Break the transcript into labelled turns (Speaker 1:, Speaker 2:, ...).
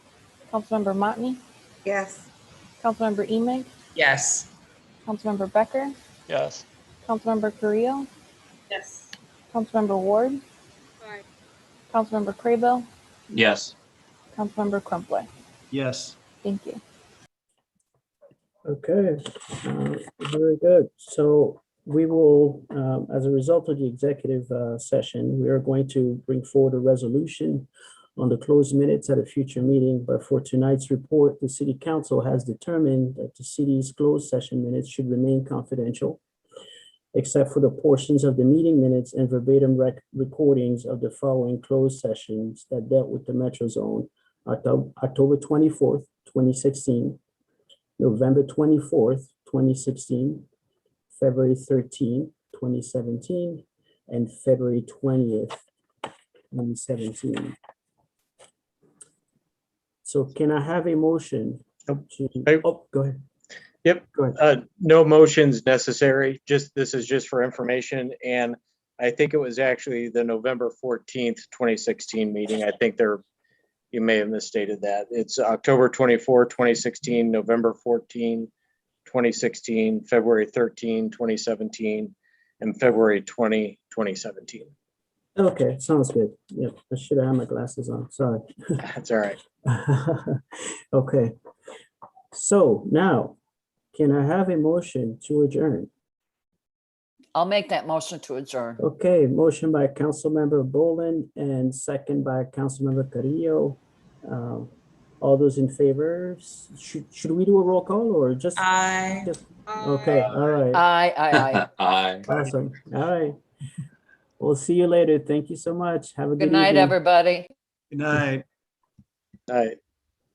Speaker 1: Councilmember Motney,
Speaker 2: Yes.
Speaker 1: Councilmember Emig,
Speaker 3: Yes.
Speaker 1: Councilmember Becker,
Speaker 4: yes,
Speaker 1: Councilmember Carrillo,
Speaker 3: Yes.
Speaker 1: Councilmember Ward,
Speaker 5: Aye.
Speaker 1: Councilmember Craybill,
Speaker 6: yes,
Speaker 1: Councilmember Crumpler.
Speaker 7: yes.
Speaker 1: Thank you.
Speaker 8: Okay, uh, very good. So we will, um, as a result of the executive uh, session, we are going to bring forward a resolution on the closed minutes at a future meeting, but for tonight's report, the city council has determined that the city's closed session minutes should remain confidential, except for the portions of the meeting minutes and verbatim rec- recordings of the following closed sessions that dealt with the metro zone, Octo- October twenty-fourth, twenty sixteen, November twenty-fourth, twenty sixteen, February 13, 2017, and February twentieth, twenty seventeen. So can I have a motion?
Speaker 9: Nope.
Speaker 8: to-
Speaker 9: Hey.
Speaker 8: Oh, go ahead.
Speaker 9: Yep.
Speaker 8: Go ahead.
Speaker 9: Uh, no motions necessary, just, this is just for information, and I think it was actually the November fourteenth, twenty sixteen meeting, I think there, you may have misstated that, it's October 24, 2016, November 14, 2016, February 13, 2017, and February 20, 2017.
Speaker 8: Okay, sounds good. Yeah, I should have had my glasses on, sorry.
Speaker 9: That's all right.
Speaker 8: Okay. So now, can I have a motion to adjourn?
Speaker 10: I'll make that motion to adjourn.
Speaker 8: Okay, motion by Councilmember Bolin and second by Councilmember Carrillo. Um, All those in favor, S- should, should we do a roll call or just?
Speaker 3: I.
Speaker 8: Okay, all right,
Speaker 10: Aye, aye, aye.
Speaker 6: aye.
Speaker 8: awesome, all right. We'll see you later. Thank you so much. Have a good
Speaker 10: Good night,
Speaker 8: evening.
Speaker 10: everybody.
Speaker 7: Good night.
Speaker 9: All right.